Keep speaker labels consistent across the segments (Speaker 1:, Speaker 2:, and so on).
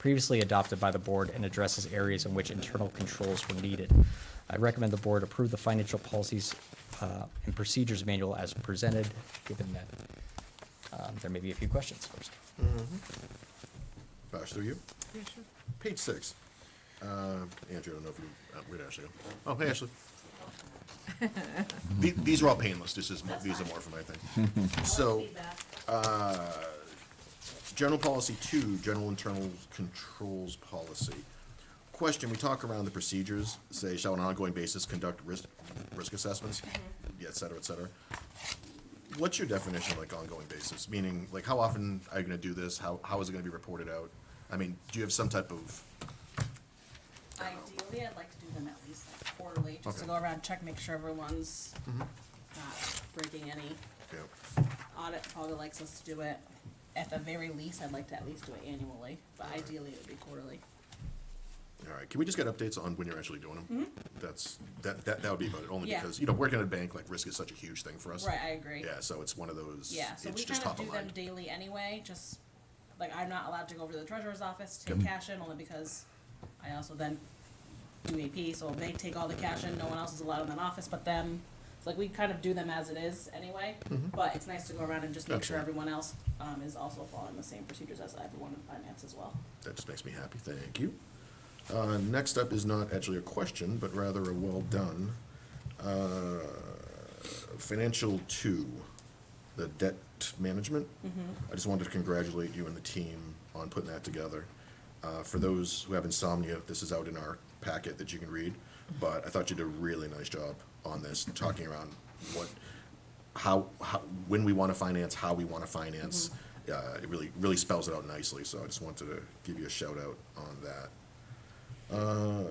Speaker 1: previously adopted by the board and addresses areas in which internal controls were needed. I recommend the board approve the financial policies uh, and procedures manual as presented, given that um, there may be a few questions first.
Speaker 2: Pass through Mm-hmm. you. Page six. Uh, Andrew, I don't know if you, uh, where'd Ashley go? Oh, hey, Ashley. The- These are all painless, this is, mo- these are more for my thing. So, uh, general policy two, general internal controls policy. Question, we talk around the procedures, say, shall on an ongoing basis conduct risk, risk assessments,
Speaker 3: Mm-hmm.
Speaker 2: et cetera, et cetera. What's your definition of like ongoing basis? Meaning, like, how often are you gonna do this? How, how is it gonna be reported out? I mean, do you have some type of,
Speaker 3: Ideally, I'd like to do them at least like quarterly, just to
Speaker 2: Okay. Mm-hmm.
Speaker 3: go around, check, make sure everyone's not breaking any
Speaker 2: you know,
Speaker 3: audit, probably likes us to do it. At the very least, I'd like to at least do it annually, but ideally it would be quarterly.
Speaker 2: all right, can we just get updates on when you're actually doing them? That's, that, that, that would be about it, only
Speaker 3: Mm-hmm. Yeah.
Speaker 2: because, you know, working at a bank, like, risk is such a huge thing for us.
Speaker 3: Right, I agree.
Speaker 2: Yeah, so it's one of those,
Speaker 3: Yeah, so
Speaker 2: it's
Speaker 3: we
Speaker 2: just
Speaker 3: kind
Speaker 2: top of
Speaker 3: of do them
Speaker 2: mind.
Speaker 3: daily anyway, just, like, I'm not allowed to go over to the treasurer's office, to take cash in, only because I also then do AP, so they take all the cash in, no one else is allowed in that office but them. It's like, we kind of do them as it is anyway,
Speaker 2: Mm-hmm.
Speaker 3: but it's nice to go around and just make sure
Speaker 2: Absolutely.
Speaker 3: everyone else, um, is also following the same procedures as everyone in finance as well.
Speaker 2: That just makes me happy, thank you. Uh, next up is not actually a question, but rather a well done. Uh, Financial two, the debt management.
Speaker 3: Mm-hmm.
Speaker 2: I just wanted to congratulate you and the team on putting that together. Uh, for those who have insomnia, this is out in our packet that you can read, but I thought you did a really nice job on this, talking around what, how, how, when we want to finance, how we want to finance. Uh, it really, really spells it out nicely, so I just wanted to give you a shout out on that. Uh,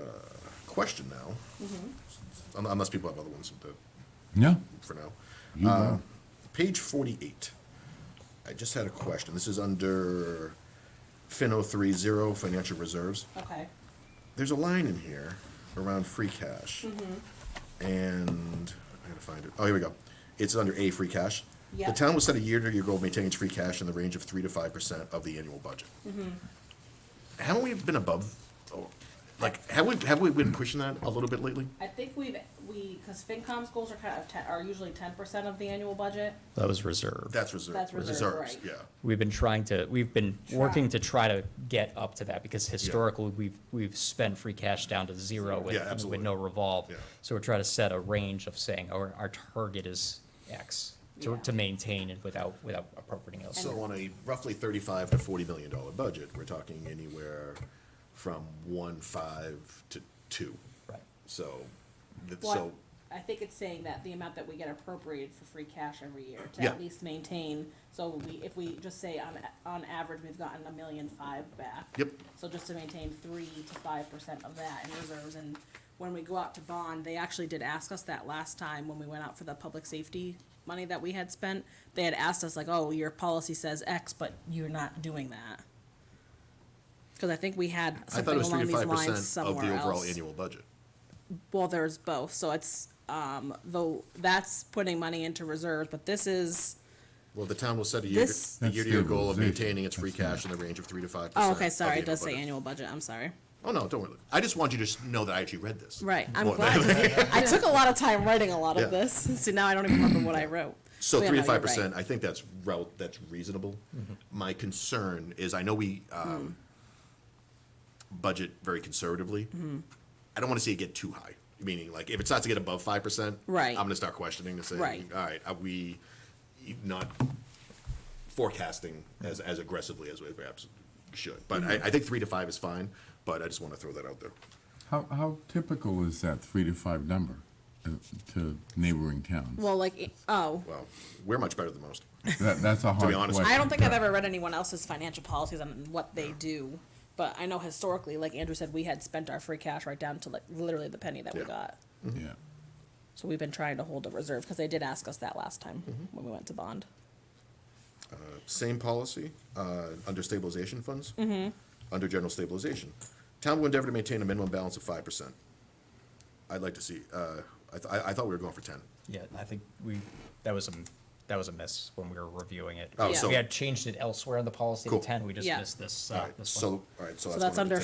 Speaker 2: question now, Un- unless people have other ones that,
Speaker 4: No.
Speaker 2: for now.
Speaker 4: You
Speaker 2: Uh,
Speaker 4: know.
Speaker 2: Page forty-eight. I just had a question. This is under Fin oh three zero, financial reserves.
Speaker 3: Okay,
Speaker 2: There's a line in here around free cash.
Speaker 3: Mm-hmm.
Speaker 2: And, I gotta find it. Oh, here we go. It's under A, free cash.
Speaker 3: Yeah.
Speaker 2: The town will set a year-to-year goal of maintaining its free cash in the range of three to five percent of the annual budget.
Speaker 3: Mm-hmm.
Speaker 2: Haven't we been above, oh, like, have we, have we been pushing that a little bit lately?
Speaker 3: I think we've, we, cause FinCom's goals are kind of ten, are usually ten percent of the annual budget.
Speaker 1: That was reserved.
Speaker 2: That's reserve,
Speaker 3: That's reserve,
Speaker 2: reserves,
Speaker 3: right.
Speaker 2: yeah.
Speaker 1: We've been trying to, we've been working
Speaker 3: Try.
Speaker 1: to try to get up to that because historically, we've, we've spent free cash down to zero with,
Speaker 2: Yeah, absolutely.
Speaker 1: with no revolve.
Speaker 2: Yeah.
Speaker 1: So we're trying to set a range of saying, our, our target is X to,
Speaker 3: Yeah.
Speaker 1: to maintain and without, without appropriating else.
Speaker 2: So on a roughly thirty-five to forty million dollar budget, we're talking anywhere from one five to two.
Speaker 1: Right.
Speaker 2: So, th-
Speaker 3: Well,
Speaker 2: so,
Speaker 3: I think it's saying that the amount that we get appropriated for free cash every year to
Speaker 2: Yeah.
Speaker 3: at least maintain. So we, if we just say on, a- on average, we've gotten a million five back.
Speaker 2: yep,
Speaker 3: So just to maintain three to five percent of that in reserves, and when we go out to bond, they actually did ask us that last time when we went out for the public safety money that we had spent. They had asked us like, oh, your policy says X, but you're not doing that. Cause I think we had
Speaker 2: I thought it
Speaker 3: something
Speaker 2: was three
Speaker 3: along
Speaker 2: to
Speaker 3: these
Speaker 2: five
Speaker 3: lines
Speaker 2: percent of
Speaker 3: somewhere
Speaker 2: the
Speaker 3: else.
Speaker 2: overall annual budget.
Speaker 3: Well, there's both, so it's, um, though, that's putting money into reserves, but this is,
Speaker 2: Well, the town will set a year,
Speaker 3: This-
Speaker 2: a
Speaker 4: That's
Speaker 2: year-to-year goal of
Speaker 4: stabilization.
Speaker 2: maintaining its free
Speaker 4: That's not-
Speaker 2: cash in the range of three to five percent.
Speaker 3: oh, okay,
Speaker 2: of the
Speaker 3: sorry, it does say
Speaker 2: budget.
Speaker 3: annual budget, I'm sorry.
Speaker 2: Oh, no, don't worry, I just want you to s- know that I actually read this.
Speaker 3: Right, I'm
Speaker 2: Well,
Speaker 3: glad, 'cause I took a lot of time writing a lot
Speaker 2: Yeah.
Speaker 3: of this, so now I don't even remember what I wrote.
Speaker 2: So
Speaker 3: Oh, Yeah,
Speaker 2: three to
Speaker 3: no, you're
Speaker 2: five percent,
Speaker 3: right.
Speaker 2: I think that's rel, that's reasonable. My concern is, I know we, um,
Speaker 3: Mm.
Speaker 2: budget very conservatively.
Speaker 3: Mm-hmm.
Speaker 2: I don't wanna see it get too high, meaning like, if it starts to get above five percent.
Speaker 3: Right.
Speaker 2: I'm gonna start questioning to say,
Speaker 3: Right.
Speaker 2: alright, are we not forecasting as, as aggressively as we perhaps should? But I,
Speaker 3: Mm-hmm.
Speaker 2: I think three to five is fine, but I just wanna throw that out there.
Speaker 4: How, how typical is that three to five number uh, to neighboring towns?
Speaker 3: Well, like, it- oh,
Speaker 2: Well, we're much better than most.
Speaker 4: That, that's a hard question.
Speaker 2: honest with
Speaker 3: I don't think I've ever read anyone else's financial policies on what they do, but I know historically, like Andrew said, we had spent our free cash right down to like literally the penny that we
Speaker 2: Yeah.
Speaker 3: got.
Speaker 4: Yeah.
Speaker 3: So we've been trying to hold a reserve, because they did ask us that last time
Speaker 2: Mm-hmm.
Speaker 3: when we went to bond.
Speaker 2: Same policy, uh, under stabilization funds. Under general stabilization. Town will endeavor to maintain a minimum balance of five percent. I'd like to see, uh, I, th- I I thought we were going for ten.
Speaker 1: Yeah, I think we, that was a that was a miss when we were reviewing it.
Speaker 2: Oh,
Speaker 3: Yeah. so-
Speaker 1: We had changed it elsewhere in the policy to
Speaker 2: Cool.
Speaker 1: ten, we just
Speaker 3: Yeah.
Speaker 1: missed this,
Speaker 2: All
Speaker 1: uh,
Speaker 2: right,
Speaker 1: this one.
Speaker 2: so, all right, so that's.
Speaker 3: that's
Speaker 2: one of the
Speaker 3: under
Speaker 2: ten.